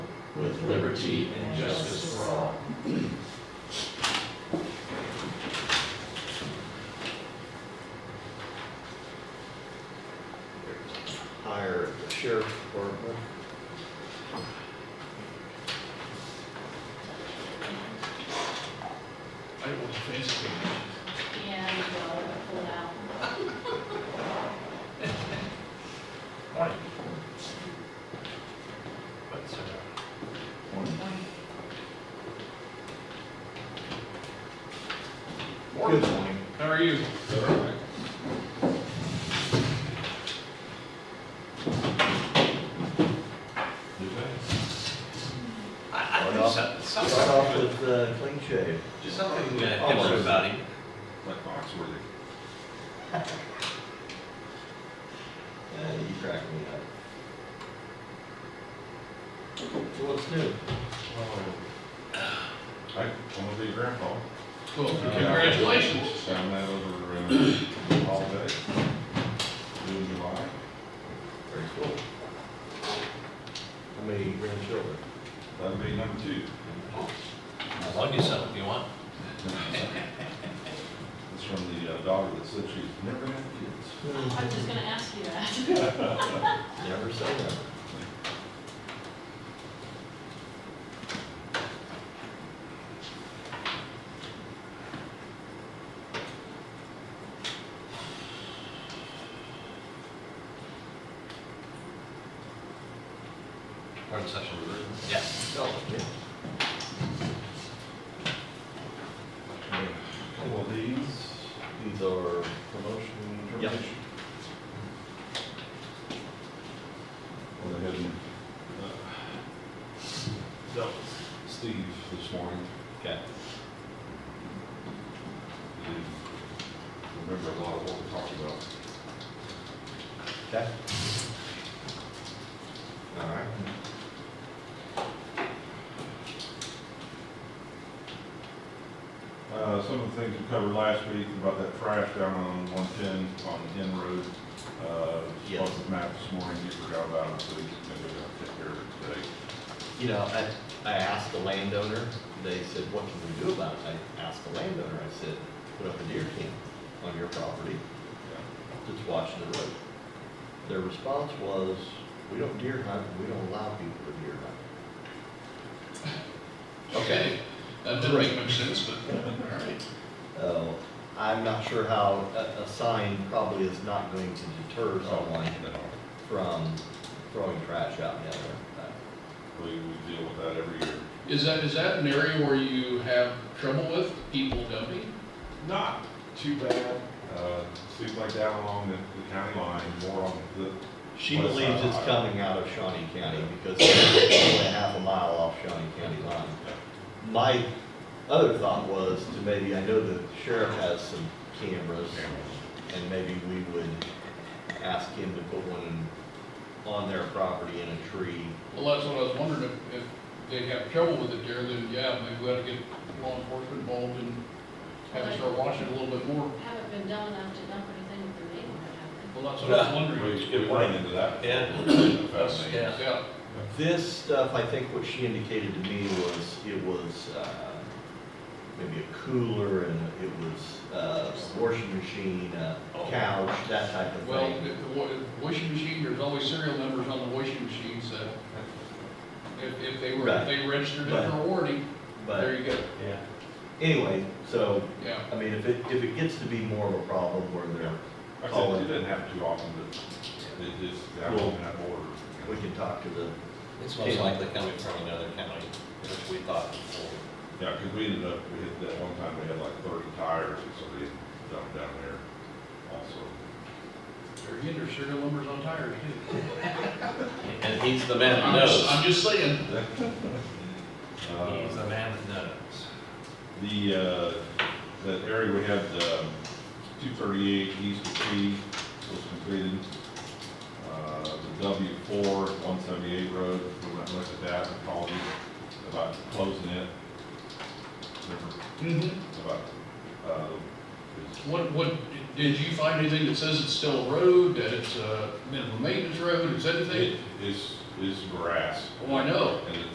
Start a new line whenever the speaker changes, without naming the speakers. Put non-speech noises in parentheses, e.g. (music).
with liberty and justice for all.
hire the sheriff department.
I will face it.
And, uh, pull out.
Right. But, uh,
Good morning.
how are you? I, I
Right
think
off-
so-
Start
something,
off
good-
with uh, clean shave.
just something uh,
Almost.
different about him.
Like Foxworthy.
(laughs) Yeah, Uh, you crack me up. So what's new?
I want to be a grandpa. Uh,
Well, congratulations.
Found that over, uh, all day, in July.
Very cool. How many grandchildren?
That'd be number two. (laughs)
I'll get some if you want.
It's from the uh, daughter that said she's never had kids.
I was just gonna ask you that. (laughs)
Never say never.
We're in session, yeah.
Well, these,
These are,
promotion and
Yep.
termination. Went ahead and, uh, Steve this morning.
okay,
He remembered a lot of what we talked about.
okay. All right.
Uh, some of the things we covered last week about that trash down on one ten on the end road. Uh,
Yes.
spoke with Matt this morning, he forgot about it, so he's gonna go down and take care of it today.
You know, I, I asked the landowner, they said, what can we do about it? I asked the landowner, I said, put up a deer camp on your property that's watching the road. Their response was, we don't deer hunt, and we don't allow people to deer hunt.
Okay, that didn't make much sense, but, all right.
Uh, I'm not sure how, a, a sign probably is not going to deter someone
Then I'll-
from throwing trash out in the other.
We, we deal with that every year.
Is that, is that an area where you have trouble with people dumping?
Not too bad. Uh, seems like down along the, the county line, more on the,
She
Well, it's
believes
not
it's
allowed.
coming out of Shawnee County (coughs) because it's only a half a mile off Shawnee County line. My other thought was to maybe, I know the sheriff has some cameras, and maybe we would ask him to put one on their property in a tree.
Well, that's what I was wondering, if, if they have trouble with it there, then yeah, maybe we ought to get law enforcement involved and have them start watching it a little bit more.
Haven't been dumb enough to dump anything with the neighborhood, have
Well, that's what I was wondering.
we, we run into that.
Yeah.
That's-
Yeah.
Yeah,
This stuff, I think what she indicated to me was, it was, uh, maybe a cooler, and it was, uh, washing machine, a couch, that type of
Oh. well,
thing.
if the wa- washing machine, there's always serial numbers on the washing machines, so if, if they were,
Right.
if they registered it
Right.
for a warning, there
But,
you go,
yeah. Anyway, so
yeah.
I mean, if it, if it gets to be more of a problem where they're,
I said, it didn't happen too often, but it is down
Well-
on that border.
we can talk to the,
It's most likely coming from another county, which we thought before.
Yeah, because we ended up, we had, that one time we had like thirty tires that somebody had dumped down there also.
There again, there's serial numbers on tires too.
And he's the man
I'm
who
just,
knows.
I'm just saying.
Uh,
He's the man that knows.
The, uh, that area we had, um, two thirty-eight east of P was completed. Uh, the W four, one seventy-eight road, we went and looked at that and called you about closing it. Remember, About, uh, it's-
Mm-hmm. What, what, did you find anything that says it's still a road, that it's a minimum maintenance road, is anything?
it is, is grass.
Oh, I know.
And it's